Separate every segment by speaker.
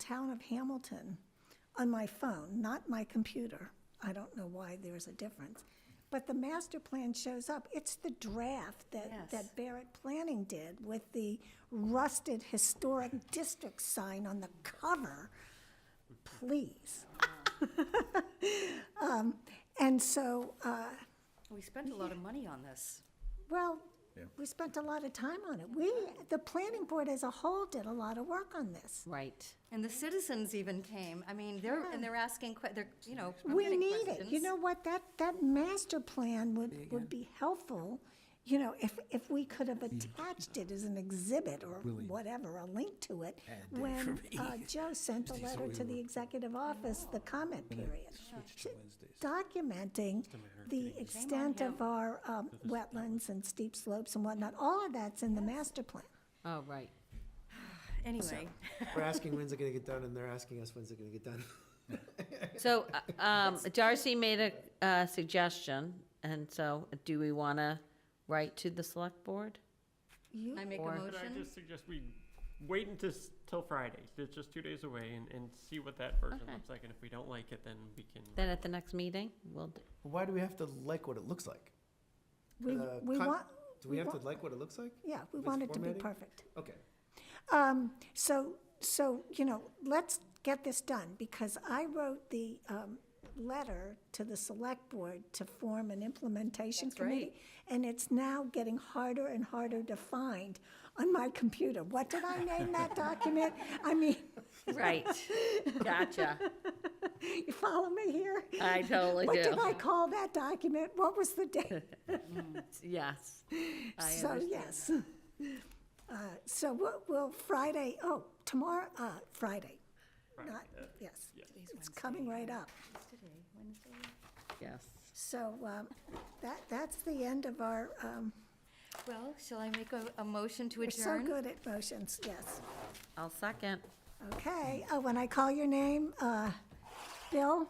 Speaker 1: town of Hamilton on my phone, not my computer. I don't know why there's a difference. But the master plan shows up. It's the draft that,
Speaker 2: Yes.
Speaker 1: that Barrett Planning did with the rusted historic district sign on the cover. Please. Um, And so, uh,
Speaker 2: We spent a lot of money on this.
Speaker 1: well, we spent a lot of time on it. We, the planning board as a whole did a lot of work on this.
Speaker 3: Right.
Speaker 2: And the citizens even came. I mean, they're, and they're asking, que- they're, you know, I'm
Speaker 1: We
Speaker 2: getting
Speaker 1: need it. You
Speaker 2: questions.
Speaker 1: know what, that, that master plan would, would be helpful, you know, if, if we could have attached it as an exhibit or whatever, a link to it, when uh, Joe sent the letter to the executive office, the comment period. Documenting the extent of our um, wetlands and steep slopes and whatnot, all of that's in the master plan.
Speaker 3: Oh, right.
Speaker 2: Anyway,
Speaker 4: We're asking when's it gonna get done, and they're asking us when's it gonna get done.
Speaker 3: So uh, um, Darcy made a uh, suggestion, and so do we want to write to the select board?
Speaker 1: You
Speaker 4: Uh,
Speaker 2: I make a
Speaker 3: Or-
Speaker 5: Could I
Speaker 2: motion.
Speaker 5: just suggest we wait until, s- till Friday, it's just two days away, and, and see what that version
Speaker 3: Okay.
Speaker 5: looks like, and if we don't like it, then we can.
Speaker 3: Then at the next meeting, we'll, d-
Speaker 4: Why do we have to like what it looks like?
Speaker 1: We,
Speaker 4: The
Speaker 1: we
Speaker 4: con-
Speaker 1: want,
Speaker 4: Do we
Speaker 1: we
Speaker 4: have to
Speaker 1: want-
Speaker 4: like what it looks like?
Speaker 1: yeah, we
Speaker 4: With
Speaker 1: want it to be
Speaker 4: formatting?
Speaker 1: perfect.
Speaker 4: Okay.
Speaker 1: Um, so, so, you know, let's get this done, because I wrote the, um, letter to the select board to form an implementation
Speaker 2: right.
Speaker 1: committee. And it's now getting harder and harder to find on my computer. What did I name that document? I mean,
Speaker 3: right. Gotcha.
Speaker 1: you follow me here?
Speaker 3: I totally
Speaker 1: What
Speaker 3: do.
Speaker 1: did I call that document? What was the date?
Speaker 3: Yes. I
Speaker 1: So,
Speaker 3: understand.
Speaker 1: yes. Uh, So we'll, we'll Friday, oh, tomorrow, uh, Friday,
Speaker 5: Friday,
Speaker 1: not,
Speaker 5: uh,
Speaker 1: yes.
Speaker 5: yeah.
Speaker 1: It's coming right up.
Speaker 2: Today, Wednesday.
Speaker 3: Yes.
Speaker 1: So um, that, that's the end of our, um,
Speaker 2: Well, shall I make a, a motion to
Speaker 1: we're so
Speaker 2: adjourn?
Speaker 1: good at motions, yes.
Speaker 3: I'll second.
Speaker 1: Okay, oh, when I call your name, uh, Bill,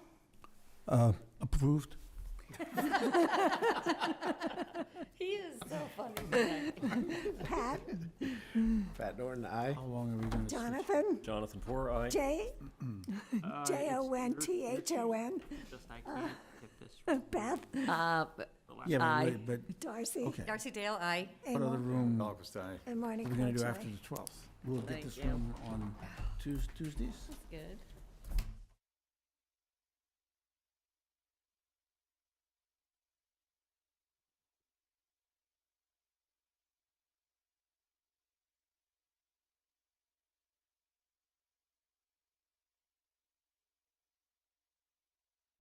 Speaker 6: Approved.
Speaker 2: He is so funny today.
Speaker 1: Pat,
Speaker 4: Fat Norton, I.
Speaker 6: How long are we going to?
Speaker 1: Jonathan,
Speaker 7: Jonathan Porter, aye.
Speaker 1: J,
Speaker 5: Uh, it's-
Speaker 1: J-O-N-T-H-O-N,
Speaker 5: Just I can't get this from
Speaker 1: Beth,
Speaker 3: Uh, b-
Speaker 5: the last.
Speaker 6: Yeah,
Speaker 3: Aye.
Speaker 6: but, wait, but
Speaker 1: Darcy,
Speaker 6: Okay.
Speaker 2: Darcy Dale, aye.
Speaker 6: what other
Speaker 1: Amor,
Speaker 6: room are
Speaker 8: August, aye.
Speaker 1: and Marnie
Speaker 6: we going to do
Speaker 1: Croce.
Speaker 6: after the 12th? We'll get
Speaker 3: Thank
Speaker 6: this
Speaker 3: you.
Speaker 6: room on Tues- Tuesdays?
Speaker 3: Good.